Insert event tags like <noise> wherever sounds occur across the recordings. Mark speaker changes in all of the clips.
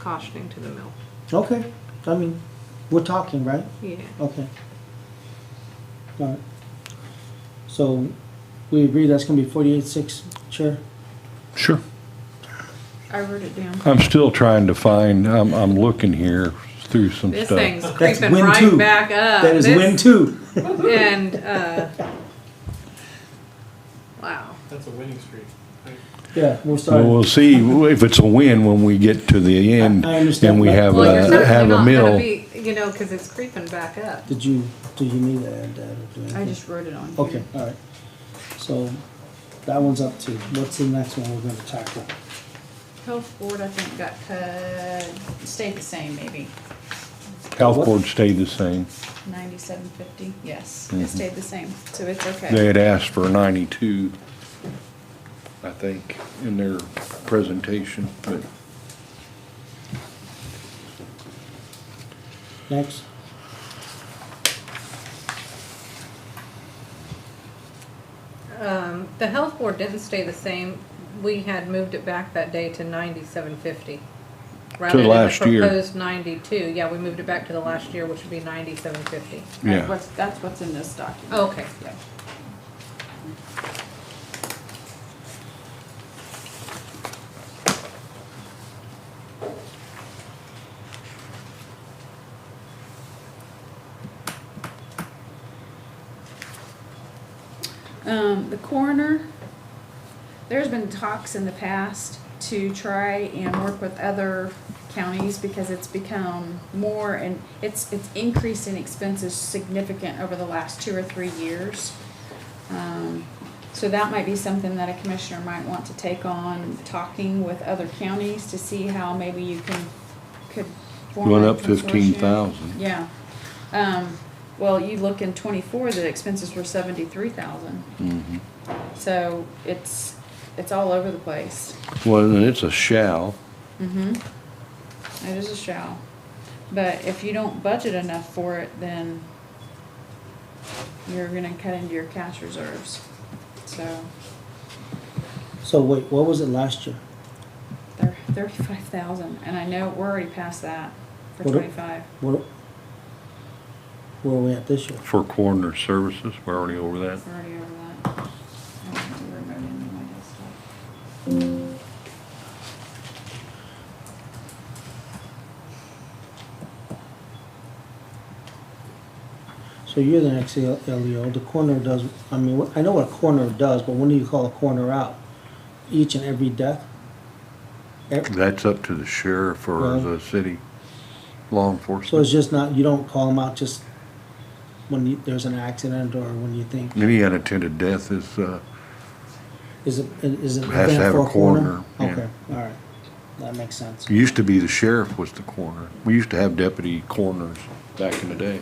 Speaker 1: cautioning to the mill.
Speaker 2: Okay, I mean, we're talking, right?
Speaker 1: Yeah.
Speaker 2: Okay. Alright. So, we agree that's gonna be forty-eight six, Chair?
Speaker 3: Sure.
Speaker 1: I wrote it down.
Speaker 3: I'm still trying to find, I'm, I'm looking here through some
Speaker 1: This
Speaker 3: stuff.
Speaker 1: thing's
Speaker 2: That's
Speaker 1: creeping
Speaker 2: win
Speaker 1: right
Speaker 2: two.
Speaker 1: back
Speaker 4: Uh,
Speaker 1: up.
Speaker 2: That is
Speaker 1: This-
Speaker 2: win two.
Speaker 1: And uh, wow,
Speaker 5: That's a winning streak. Like,
Speaker 2: Yeah, we're
Speaker 3: Well,
Speaker 2: starting.
Speaker 3: we'll see if it's a win when we get to the end.
Speaker 2: I understand,
Speaker 3: And we
Speaker 2: but-
Speaker 3: have
Speaker 1: well, you're
Speaker 3: a,
Speaker 1: certainly
Speaker 3: have a
Speaker 1: not gonna
Speaker 3: mill.
Speaker 1: be, you know, because it's creeping back up.
Speaker 2: Did you, did you need to add that or do anything?
Speaker 4: I just wrote it on here.
Speaker 2: Okay, alright. So, that one's up to, what's the next one we're gonna tackle?
Speaker 4: Health board, I think, got cut, stayed the same, maybe
Speaker 3: Health board stayed the same.
Speaker 4: ninety-seven fifty, yes, it stayed the same, so it's
Speaker 3: They
Speaker 4: okay.
Speaker 3: had asked for ninety-two, I think, in their presentation, but
Speaker 2: Next?
Speaker 1: Um, the health board didn't stay the same. We had moved it back that day to ninety-seven fifty. Rather than the
Speaker 3: last year.
Speaker 1: Proposed ninety-two, yeah, we moved it back to the last year, which would be ninety-seven fifty.
Speaker 4: That's
Speaker 3: yeah.
Speaker 4: what's- That's what's in this document.
Speaker 1: Okay,
Speaker 4: Yeah. Um, the coroner, there's been talks in the past to try and work with other counties because it's become more and it's, it's increased in expenses significant over the last two or three years. Um, so that might be something that a commissioner might want to take on, talking with other counties to see how maybe you can, could form
Speaker 3: Went
Speaker 4: a
Speaker 3: up fifteen
Speaker 4: consortium.
Speaker 3: thousand.
Speaker 4: Yeah. Um, well, you look in twenty-four, the expenses were seventy-three thousand.
Speaker 3: Mm-hmm.
Speaker 4: So it's, it's all over the place.
Speaker 3: Well, and it's a shall.
Speaker 4: It is a shall. But if you don't budget enough for it, then you're gonna cut into your cash reserves. So
Speaker 2: So wait, what was it last year?
Speaker 4: they're thirty-five thousand, and I know we're already past that for
Speaker 2: What do-
Speaker 4: twenty-five.
Speaker 2: What? Where are we at this year?
Speaker 3: For coroner services, we're already over that.
Speaker 4: We're already over that. I don't have to remember any of my stuff.
Speaker 2: So you're the next L- LEO, the coroner does, I mean, wh- I know what a coroner does, but when do you call a coroner out? Each and every death? E, Ev-
Speaker 3: That's up to the sheriff or
Speaker 2: Well-
Speaker 3: the city law
Speaker 2: So it's
Speaker 3: enforcement.
Speaker 2: just not, you don't call them out just when you, there's an accident or when you think,
Speaker 3: Any unattended death is, uh,
Speaker 2: is it, is it an
Speaker 3: Has to
Speaker 2: event
Speaker 3: have a
Speaker 2: for a coroner?
Speaker 3: coroner, yeah. Uh,
Speaker 2: Okay, alright, that makes sense.
Speaker 3: used to be the sheriff was the coroner. We used to have deputy coroners back in the day.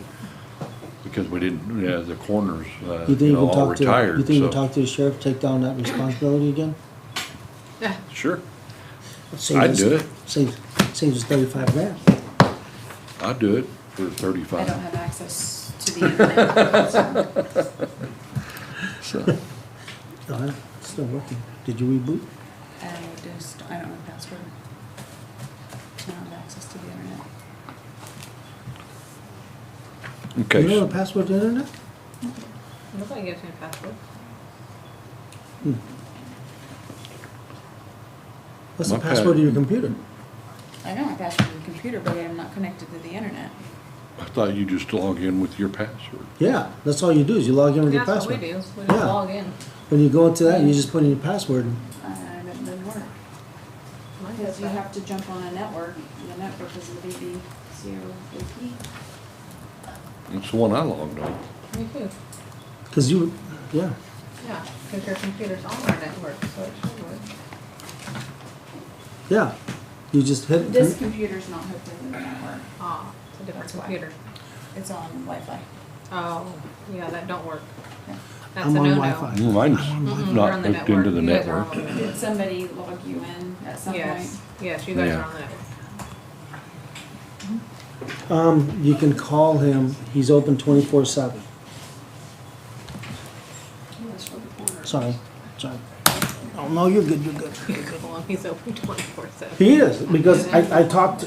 Speaker 3: Because we didn't, yeah, the coroners, uh,
Speaker 2: You think
Speaker 3: you
Speaker 2: you can
Speaker 3: know, all
Speaker 2: talk to, you
Speaker 3: retired,
Speaker 2: think you can
Speaker 3: so.
Speaker 2: talk to the sheriff, take down that responsibility again?
Speaker 3: Sure,
Speaker 2: Save
Speaker 3: I'd
Speaker 2: us-
Speaker 3: do it.
Speaker 2: Saves, saves us thirty-five grand.
Speaker 3: I'd do it for
Speaker 4: I don't
Speaker 3: thirty-five.
Speaker 4: have access to the internet. so. <laughs>
Speaker 3: So,
Speaker 2: Oh, yeah, it's still working. Did you reboot?
Speaker 4: I just, I don't know the password. I don't have access to the internet.
Speaker 2: You know
Speaker 3: Okay,
Speaker 2: the password to the internet?
Speaker 1: nobody gives me a password.
Speaker 2: What's the
Speaker 3: My
Speaker 2: password
Speaker 3: pa-
Speaker 2: to your computer?
Speaker 4: I know my password to the computer, but I'm not connected to the internet.
Speaker 3: I thought you just log in with your password.
Speaker 2: Yeah, that's all you do is you log in with your
Speaker 1: That's what we
Speaker 2: password.
Speaker 1: do, we just
Speaker 2: Yeah.
Speaker 1: log in.
Speaker 2: When you go into that, you just put in your password.
Speaker 4: And it doesn't work.
Speaker 1: Mine
Speaker 4: Because
Speaker 1: does
Speaker 4: you
Speaker 1: that.
Speaker 4: have to jump on a network, and the network is the VVCOAP.
Speaker 3: It's the one I logged on.
Speaker 1: Me too,
Speaker 2: Because you, yeah.
Speaker 1: yeah, because your computer's on our network, so it should work.
Speaker 2: Yeah. You just hit
Speaker 4: This computer's not hooked into the network.
Speaker 1: Ah, it's a different
Speaker 4: That's why.
Speaker 1: computer.
Speaker 4: It's on Wi-Fi.
Speaker 1: Oh, yeah, that don't work.
Speaker 4: Yeah.
Speaker 1: That's a
Speaker 2: I'm on
Speaker 1: no-no.
Speaker 2: Wi-Fi.
Speaker 1: Mm-mm,
Speaker 3: Mine's
Speaker 1: you're on
Speaker 3: not
Speaker 1: the
Speaker 3: hooked into the
Speaker 1: You guys are on
Speaker 3: network.
Speaker 1: the network.
Speaker 4: Did somebody log you in at some point?
Speaker 1: Yes, yes, you guys are
Speaker 3: Yeah.
Speaker 1: on the network. <laughs>
Speaker 2: Um, you can call him. He's open 24 7. Sorry. Sorry. Oh, no, you're good. You're good.
Speaker 1: He's open twenty-four seven.
Speaker 2: He is, because I, I talked